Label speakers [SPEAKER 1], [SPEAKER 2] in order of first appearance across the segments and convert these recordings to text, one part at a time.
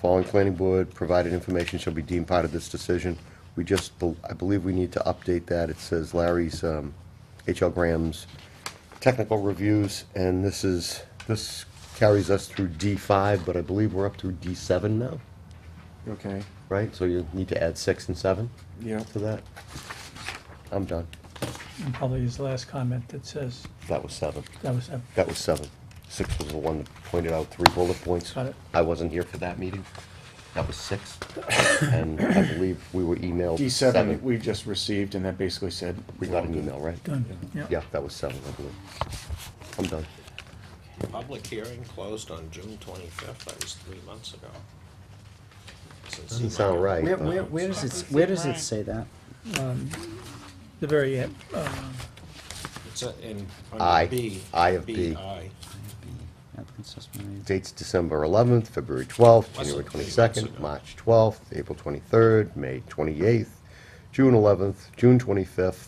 [SPEAKER 1] Following planning board provided information shall be deemed part of this decision. We just, bel- I believe we need to update that. It says Larry's, um, H.L. Graham's technical reviews, and this is, this carries us through D5, but I believe we're up to D7 now,
[SPEAKER 2] Okay,
[SPEAKER 1] right? So you need to add six and seven
[SPEAKER 2] yeah,
[SPEAKER 1] to that. I'm done.
[SPEAKER 3] And probably his last comment that says,
[SPEAKER 1] That was seven.
[SPEAKER 3] that was, uh,
[SPEAKER 1] That was seven. Six was the one that pointed out three bullet points.
[SPEAKER 3] Got it.
[SPEAKER 1] I wasn't here for that meeting. That was six. And I believe we were emailed
[SPEAKER 2] D seven,
[SPEAKER 1] seven.
[SPEAKER 2] we just received, and that basically said.
[SPEAKER 1] We got an email, right?
[SPEAKER 3] done, yeah.
[SPEAKER 1] Yeah, that was seven, I believe. I'm done.
[SPEAKER 4] Public hearing closed on June twenty-fifth, that was three months ago. Since he
[SPEAKER 1] Doesn't sound
[SPEAKER 4] might have-
[SPEAKER 1] right,
[SPEAKER 5] Where,
[SPEAKER 1] but-
[SPEAKER 5] where, where does it, where does it say that?
[SPEAKER 3] The very end, uh,
[SPEAKER 4] It's a- in,
[SPEAKER 1] I,
[SPEAKER 4] under B.
[SPEAKER 1] I of B.
[SPEAKER 4] BI.
[SPEAKER 5] Yeah, Princess Mary's.
[SPEAKER 1] Dates December 11th, February 12th,
[SPEAKER 4] Wasn't
[SPEAKER 1] January
[SPEAKER 4] three months
[SPEAKER 1] 22nd,
[SPEAKER 4] ago.
[SPEAKER 1] March 12th, April 23rd, May 28th, June 11th, June 25th.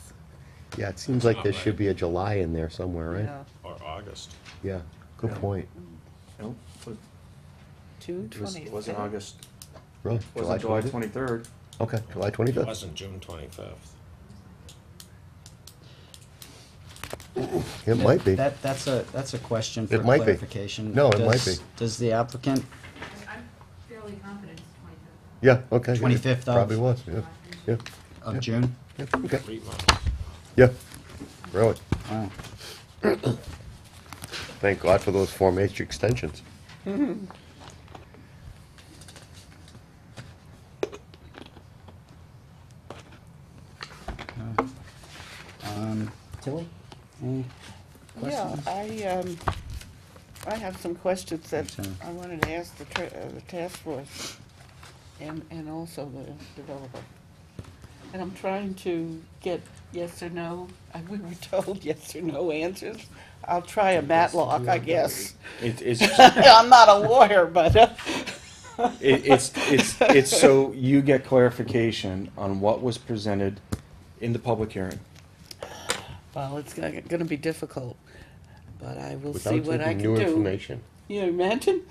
[SPEAKER 1] Yeah, it seems like there
[SPEAKER 4] Not
[SPEAKER 1] should
[SPEAKER 4] right.
[SPEAKER 1] be a July in there somewhere,
[SPEAKER 6] Yeah.
[SPEAKER 1] right?
[SPEAKER 4] or August.
[SPEAKER 1] Yeah, good
[SPEAKER 2] Yeah.
[SPEAKER 1] point.
[SPEAKER 2] Nope, it
[SPEAKER 6] Two
[SPEAKER 2] was,
[SPEAKER 6] twenty.
[SPEAKER 2] it wasn't August,
[SPEAKER 1] Really?
[SPEAKER 2] it wasn't July
[SPEAKER 1] 25th?
[SPEAKER 2] twenty-third.
[SPEAKER 1] Okay, July
[SPEAKER 4] It
[SPEAKER 1] 25th.
[SPEAKER 4] wasn't June twenty-fifth.
[SPEAKER 1] It might be.
[SPEAKER 5] That, that's a, that's a question for
[SPEAKER 1] It might be.
[SPEAKER 5] clarification.
[SPEAKER 1] No, it might
[SPEAKER 5] Does-
[SPEAKER 1] be.
[SPEAKER 5] Does the applicant,
[SPEAKER 7] I'm fairly confident it's twenty-fifth.
[SPEAKER 1] Yeah, okay. yeah, it
[SPEAKER 5] 25th of-
[SPEAKER 1] Probably was, yeah, yeah,
[SPEAKER 5] of June?
[SPEAKER 1] yeah, okay,
[SPEAKER 4] Three months.
[SPEAKER 1] yeah, really.
[SPEAKER 5] Wow.
[SPEAKER 1] Thank God for those Form H extensions.
[SPEAKER 5] oh. Um, Tilly? Any
[SPEAKER 6] Yeah, I, um, I have some questions that
[SPEAKER 5] Okay.
[SPEAKER 6] I wanted to ask the, tra- uh, the task force and, and also the developer. And I'm trying to get yes or no, Uh, we were told yes or no answers. I'll try a matlock, I guess.
[SPEAKER 2] It, it's,
[SPEAKER 6] I'm not a lawyer, but, uh,
[SPEAKER 2] it, it's, it's, it's so you get clarification on what was presented in the public hearing.
[SPEAKER 6] well, it's gonna, gonna be difficult, but I will see
[SPEAKER 1] Without
[SPEAKER 6] what I
[SPEAKER 1] taking
[SPEAKER 6] can
[SPEAKER 1] new
[SPEAKER 6] do.
[SPEAKER 1] information.
[SPEAKER 6] You imagine?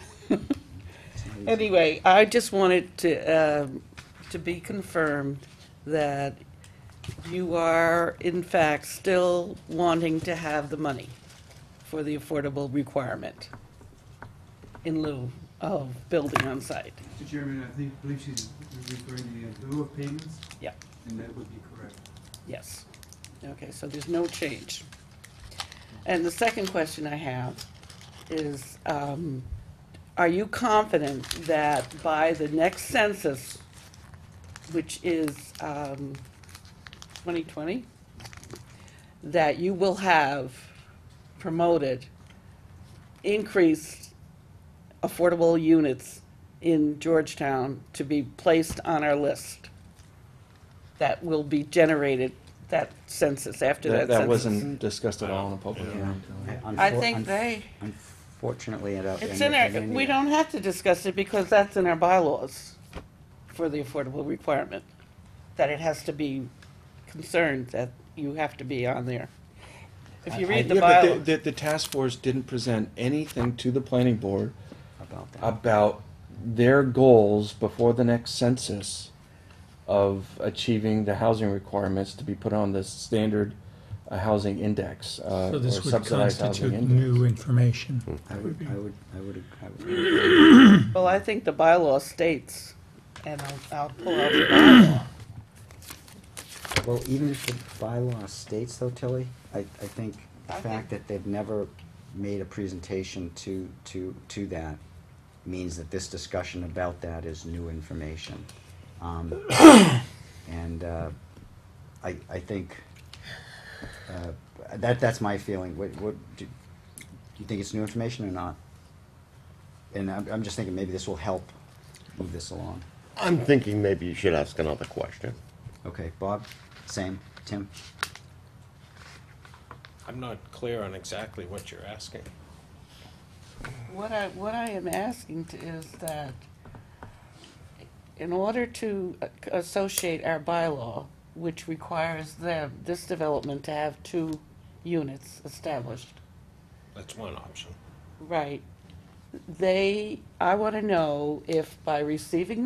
[SPEAKER 6] Anyway, I just wanted to, um, to be confirmed that you are in fact still wanting to have the money for the affordable requirement in lieu of building on site.
[SPEAKER 8] Mr. Chairman, I think, believe she's referring to the lieu of payments,
[SPEAKER 6] Yeah,
[SPEAKER 8] and that would be correct.
[SPEAKER 6] yes. Okay, so there's no change. And the second question I have is, um, are you confident that by the next census, which is, um, twenty twenty, that you will have promoted increased affordable units in Georgetown to be placed on our list? That will be generated, that census, after that
[SPEAKER 2] That,
[SPEAKER 6] census?
[SPEAKER 2] that wasn't discussed at all in a public hearing.
[SPEAKER 6] I
[SPEAKER 5] unfor-
[SPEAKER 6] think
[SPEAKER 5] un-
[SPEAKER 6] they-
[SPEAKER 5] Unfortunately, it.
[SPEAKER 6] It's in our, we don't have to discuss it because that's in our bylaws for the affordable requirement, that it has to be concerned that you have to be on there. If you read the
[SPEAKER 2] Yeah, but
[SPEAKER 6] bylaws,
[SPEAKER 2] The, the task force didn't present anything to the planning board
[SPEAKER 5] About that.
[SPEAKER 2] about their goals before the next census of achieving the housing requirements to be put on the standard uh, housing index uh,
[SPEAKER 3] so
[SPEAKER 2] or
[SPEAKER 3] this would
[SPEAKER 2] subsidized housing
[SPEAKER 3] constitute
[SPEAKER 2] index.
[SPEAKER 3] new information.
[SPEAKER 5] I
[SPEAKER 3] would
[SPEAKER 5] would,
[SPEAKER 3] be-
[SPEAKER 5] I would, I would, I would.
[SPEAKER 6] well, I think the bylaw states, and I'll, I'll pull out the bylaw.
[SPEAKER 5] Well, even if the bylaw states though, Tilly, I, I think the
[SPEAKER 6] I
[SPEAKER 5] fact
[SPEAKER 6] think-
[SPEAKER 5] that they've never made a presentation to, to, to that means that this discussion about that is new information. Um, and, uh, I, I think, uh, that, that's my feeling. What, what, do do you think it's new information or not? And I'm, I'm just thinking maybe this will help move this along.
[SPEAKER 1] I'm thinking maybe you should ask another question.
[SPEAKER 5] Okay, Bob, same, Tim?
[SPEAKER 4] I'm not clear on exactly what you're asking.
[SPEAKER 6] What I, what I am asking to- is that in order to a- associate our bylaw, which requires them, this development to have two units established,
[SPEAKER 4] That's one option.
[SPEAKER 6] right? they, I want to know if by receiving